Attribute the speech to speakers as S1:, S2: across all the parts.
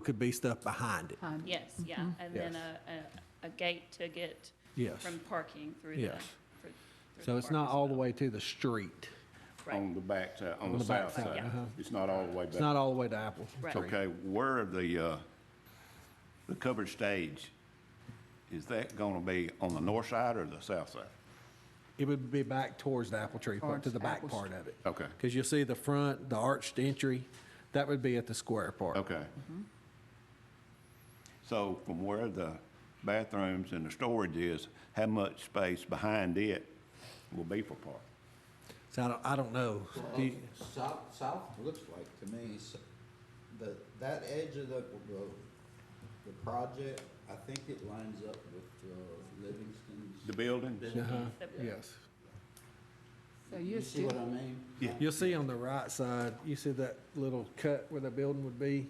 S1: could be stuff behind it.
S2: Time.
S3: Yes, yeah, and then
S1: Yes.
S3: a, a, a gate to get
S1: Yes.
S3: from parking through the.
S1: Yes.
S3: through- through
S1: So it's
S3: park
S1: not
S3: as
S1: all the
S3: well.
S1: way to the street.
S3: Right,
S4: on the back side, on
S1: the
S4: the
S1: back
S4: south
S1: side,
S4: side.
S1: uh-huh.
S4: It's not all the way
S1: It's
S4: back.
S1: not all the way to Apple
S3: Right.
S1: Tree.
S4: Okay, where are the, uh, the covered stage, is that gonna be on the north side or the south side?
S1: It would be back towards the Apple Tree, part to
S2: Towards
S1: the back
S2: Apple
S1: part
S2: Street.
S1: of it.
S4: Okay.
S1: Because you'll see the front, the arched entry, that would be at the square part.
S4: Okay. So from where the bathrooms and the storage is, how much space behind it will be for park?
S1: So I don't, I don't know. Do you-
S5: South, south looks like to me, s- the, that edge of the, the, the project, I think it lines up with uh, Livingston's.
S4: The buildings?
S1: Uh-huh.
S3: The-
S1: Yes.
S2: So
S5: You
S2: you're
S5: see what I
S2: still,
S5: mean?
S4: Yeah.
S1: You'll see on the right side, you see that little cut where the building would be?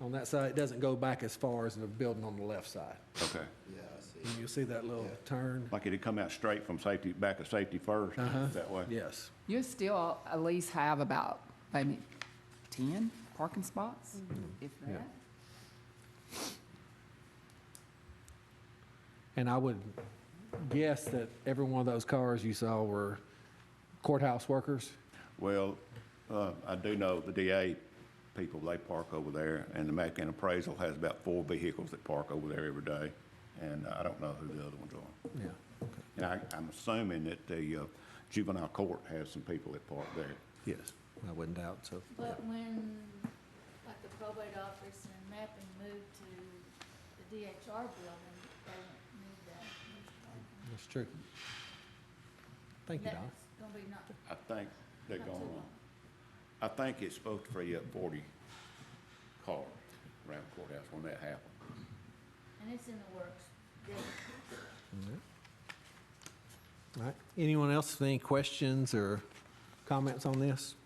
S1: On that side, it doesn't go back as far as the building on the left side.
S4: Okay.
S5: Yeah, I see.
S1: And you'll see that little turn.
S4: Like it'd come out straight from safety, back of safety first,
S1: Uh-huh.
S4: that way?
S1: Yes.
S2: you still at least have about maybe ten parking spots, if that.
S1: And I would guess that every one of those cars you saw were courthouse workers.
S4: Well, uh, I do know the DA people, they park over there, and the Mackin appraisal has about four vehicles that park over there every day, and I don't know who the other ones are.
S1: Yeah.
S4: And I, I'm assuming that the uh, juvenile court has some people that park there.
S1: Yes. I wouldn't doubt so.
S6: But when, like the probate office and mapping moved to the DHR building, they won't need that.
S1: That's true. Thank you, Don.
S6: That's gonna be not,
S4: I think they're
S6: not too
S4: going on.
S6: long.
S4: I think it's supposed to free up forty cars around the courthouse when that happens.
S6: And it's in the works. They-
S1: All right. Anyone else with any questions or comments on this?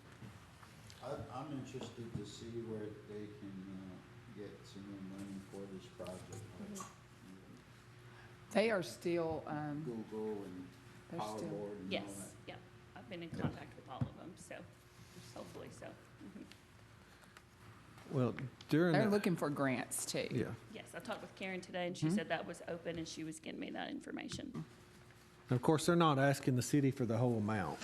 S5: I, I'm interested to see where they can, uh, get some more money for this project, like
S2: They are still, um,
S5: Google and
S2: They're
S5: Power
S2: still-
S5: Board and
S3: Yes,
S5: all that.
S3: yeah, I've been in contact with all of them, so, hopefully so, Mhm.
S1: Well, during.
S2: they're
S1: the-
S2: looking for grants too.
S1: Yeah.
S3: Yes, I talked with Karen today, and she
S1: Mm-hmm.
S3: said that was open, and she was getting me that information.
S1: And of course, they're not asking the city for the whole amount.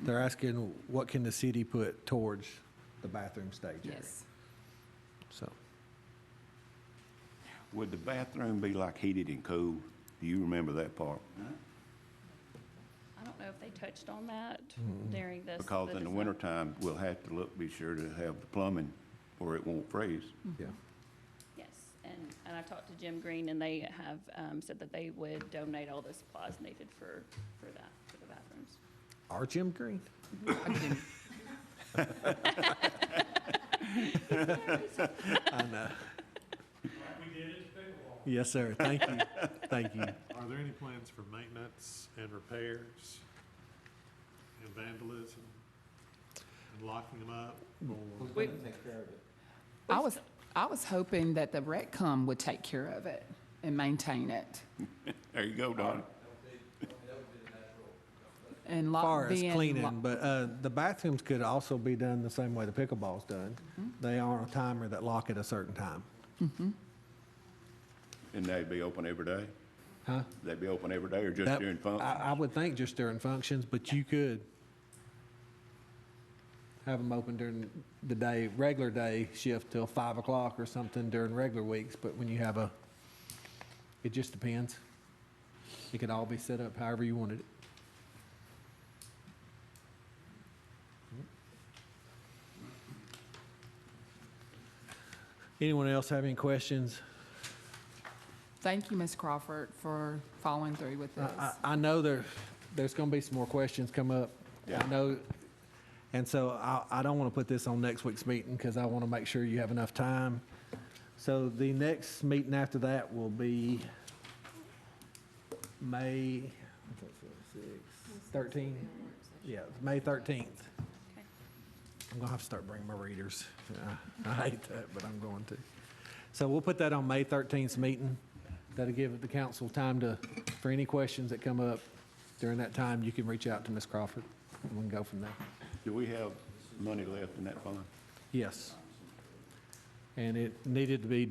S1: They're asking what can the city put towards the bathroom stage area.
S2: Yes.
S1: So,
S4: Would the bathroom be like heated and cooled? Do you remember that part?
S3: I don't know if they touched on that
S1: Mm-hmm.
S3: during this.
S4: Because in the
S3: design.
S4: wintertime, we'll have to look, be sure to have the plumbing or it won't freeze.
S1: yeah.
S3: Yes, and, and I talked to Jim Green, and they have, um, said that they would donate all the supplies needed for, for that, for the bathrooms.
S1: Our Jim Green.
S2: Okay.
S1: I know.
S7: We did it to pickleball.
S1: Yes, sir. Thank you. Thank you.
S7: Are there any plans for maintenance and repairs and vandalism and locking them up?
S5: Who's
S3: We-
S5: gonna take care of it?
S2: I was, I was hoping that the RecCom would take care of it and maintain it.
S4: There you go, Donnie.
S2: And lock
S1: far as
S2: Uh, being lo-
S1: cleaning, but uh, the bathrooms could also be done the same way the pickleball's done.
S2: Mm-hmm.
S1: They are on a timer that lock at a certain time.
S4: And they'd be open every day?
S1: Huh?
S4: They'd be open every day or just
S1: That-
S4: during fun?
S1: I, I would think just during functions, but you could have them open during the day, regular day shift till five o'clock or something during regular weeks, but when you have a, it just depends. It could all be set up however you wanted it. Anyone else have any questions?
S2: Thank you, Ms. Crawford, for following through with
S1: I-
S2: this.
S1: I, I know there, there's gonna be some more questions come up. I
S4: Yeah.
S1: know, and so I, I don't wanna put this on next week's meeting, because I wanna make sure you have enough time. So the next meeting after that will be May thirteen? Yeah, May thirteenth.
S3: Okay.
S1: I'm gonna have to start bringing my readers. I I hate that, but I'm going to. So we'll put that on May 13th's meeting. That'll give the council time to, for any questions that come up during that time, you can reach out to Ms. Crawford, and we can go from there.
S4: Do we have money left in that fund?
S1: Yes. and it needed to be